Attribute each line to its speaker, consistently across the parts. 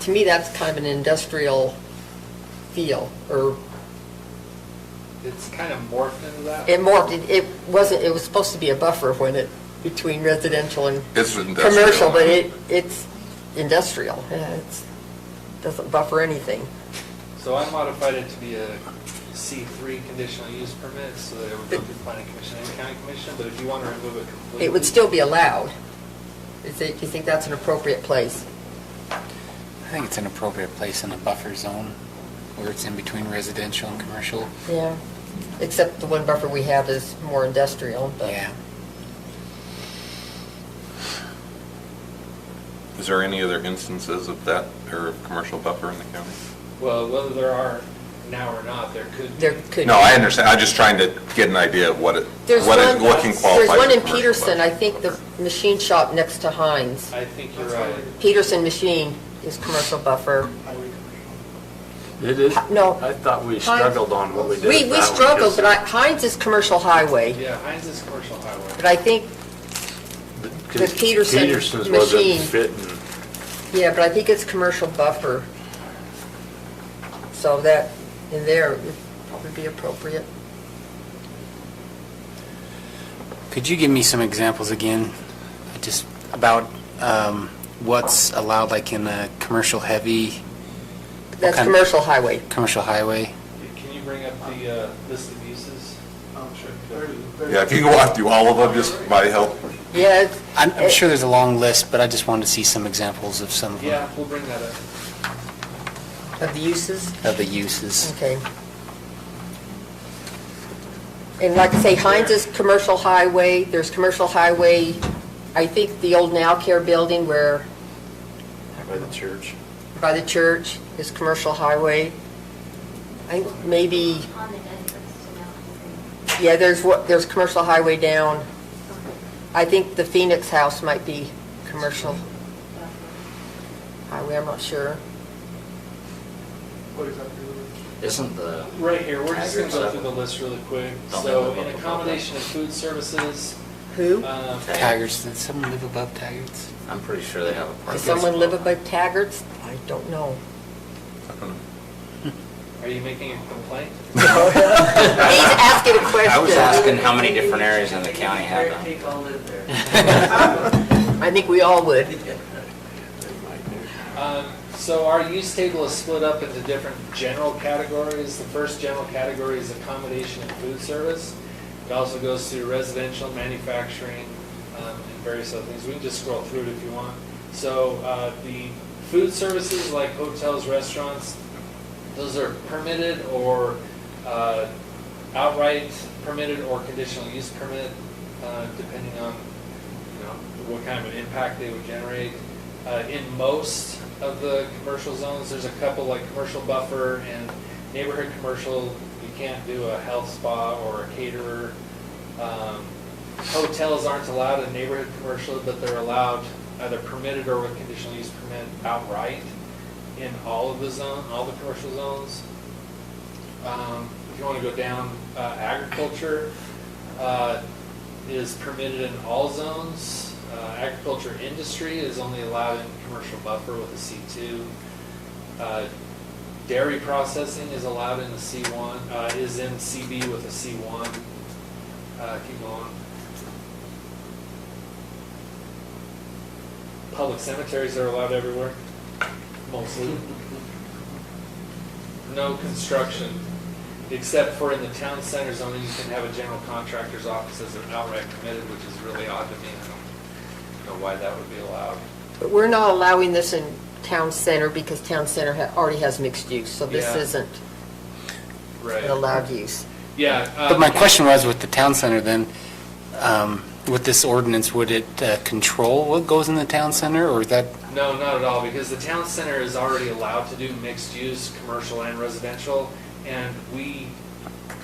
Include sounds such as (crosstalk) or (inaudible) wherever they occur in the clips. Speaker 1: to me, that's kind of an industrial feel, or
Speaker 2: It's kind of morphed into that.
Speaker 1: it morphed, It- it wasn't, it was supposed to be a buffer when it, between residential and
Speaker 3: It's industrial.
Speaker 1: commercial, but it, it's industrial, Yeah, it's, doesn't buffer anything.
Speaker 2: So I modified it to be a C3 conditional use permit, so that it would go through planning commission and county commission, but if you want to remove it completely.
Speaker 1: It would still be allowed. Is it, do you think that's an appropriate place?
Speaker 4: I think it's an appropriate place in the buffer zone where it's in between residential and commercial.
Speaker 1: Yeah. Except the one buffer we have is more industrial, but.
Speaker 4: Yeah.
Speaker 3: Is there any other instances of that, or of commercial buffer in the county?
Speaker 2: Well, whether there are now or not, there could be.
Speaker 1: There could.
Speaker 3: No, I understand, I'm just trying to get an idea of what it,
Speaker 1: There's
Speaker 3: what
Speaker 1: one-
Speaker 3: it, what can qualify
Speaker 1: There's one
Speaker 3: as
Speaker 1: in
Speaker 3: commercial
Speaker 1: Peterson, I
Speaker 3: buffer.
Speaker 1: think the machine shop next to Heinz.
Speaker 2: I think you're right.
Speaker 1: Peterson Machine is commercial buffer.
Speaker 5: It is?
Speaker 1: No.
Speaker 5: I thought we struggled on what we did.
Speaker 1: We,
Speaker 5: with
Speaker 1: we
Speaker 5: that one,
Speaker 1: struggled,
Speaker 5: 'cause
Speaker 1: but I- Heinz is commercial highway,
Speaker 2: Yeah, Heinz is commercial highway.
Speaker 1: but I think,
Speaker 5: the-
Speaker 1: the
Speaker 5: 'cause
Speaker 1: Peterson
Speaker 5: Peterson's wasn't
Speaker 1: machine.
Speaker 5: fitting.
Speaker 1: yeah, but I think it's commercial buffer. So that, in there, would probably be appropriate.
Speaker 4: Could you give me some examples again, just about um, what's allowed, like in a commercial heavy,
Speaker 1: That's
Speaker 4: Okay.
Speaker 1: commercial highway.
Speaker 4: commercial highway?
Speaker 2: Can you bring up the uh, list of uses?
Speaker 3: Yeah, if you can walk through all of them, just might help.
Speaker 1: Yeah, it's-
Speaker 4: I'm, I'm sure there's a long list, but I just wanted to see some examples of some of them,
Speaker 2: Yeah, we'll bring that up.
Speaker 1: of the uses,
Speaker 4: of the uses.
Speaker 1: okay. And like I say, Heinz is commercial highway, there's commercial highway, I think the old Now Care building where
Speaker 5: By the church.
Speaker 1: by the church is commercial highway. I think maybe,
Speaker 6: On the entrance to Mountain
Speaker 1: yeah, there's what, there's commercial highway down.
Speaker 6: Green.
Speaker 1: I think the Phoenix House might be commercial highway, I'm not sure.
Speaker 7: Isn't the,
Speaker 2: Right here, we're just gonna go
Speaker 7: Tigers.
Speaker 2: through the list really quick.
Speaker 7: Don't
Speaker 2: So
Speaker 7: they
Speaker 2: in
Speaker 7: live up above
Speaker 2: accommodation of food services,
Speaker 1: Who?
Speaker 7: Uh,
Speaker 2: um,
Speaker 4: Tigers, did someone live above Tigers?
Speaker 7: I'm pretty sure they have a park.
Speaker 1: Does someone live above Taggart's? I don't know.
Speaker 7: (laughs)
Speaker 3: I don't know.
Speaker 2: are you making a
Speaker 1: (laughs)
Speaker 2: complaint?
Speaker 1: He's asking a question.
Speaker 7: I was asking how many different areas in the county have them.
Speaker 1: I think we all would.
Speaker 2: Um, So our use table is split up into different general categories. The first general category is accommodation and food service. It also goes through residential, manufacturing, um, and various other things. We can just scroll through it if you want. So uh, the food services like hotels, restaurants, those are permitted or uh, outright permitted or conditional use permit, uh, depending on, you know, what kind of an impact they would generate. Uh, In most of the commercial zones, there's a couple like commercial buffer and neighborhood commercial, you can't do a health spa or a caterer. Um, Hotels aren't allowed in neighborhood commercial, but they're allowed either permitted or with conditional use permit outright in all of the zone, all the commercial zones. Um, If you want to go down, uh, agriculture uh, is permitted in all zones. Uh, Agriculture industry is only allowed in commercial buffer with a C2. Uh, Dairy processing is allowed in the C1, uh, is in CB with a C1. Uh, Keep going. Public cemeteries are allowed everywhere, mostly. No construction, except for in the town center zone, you can have a general contractor's office as an outright permitted, which is really odd to me. I don't know why that would be allowed.
Speaker 1: But we're not allowing this in town center because town center ha- already has mixed use, so this
Speaker 2: Yeah.
Speaker 1: isn't an allowed use.
Speaker 2: Yeah. uh,
Speaker 4: But my question was with the town center then, um, with this ordinance, would it uh, control what goes in the town center or is that,
Speaker 2: No, not at all, because the town center is already allowed to do mixed-use, commercial and residential, and we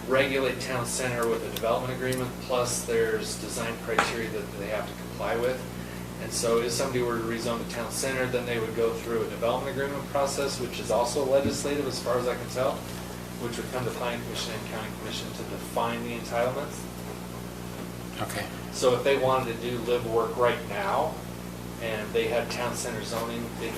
Speaker 2: regulate town center with a development agreement, plus there's design criteria that they have to comply with. And so if somebody were to rezone the town center, then they would go through a development agreement process, which is also legislative as far as I can tell, which would come to planning commission and county commission to define the entitlements.
Speaker 4: okay.
Speaker 2: So if they wanted to do live work right now, and they had town center zoning, they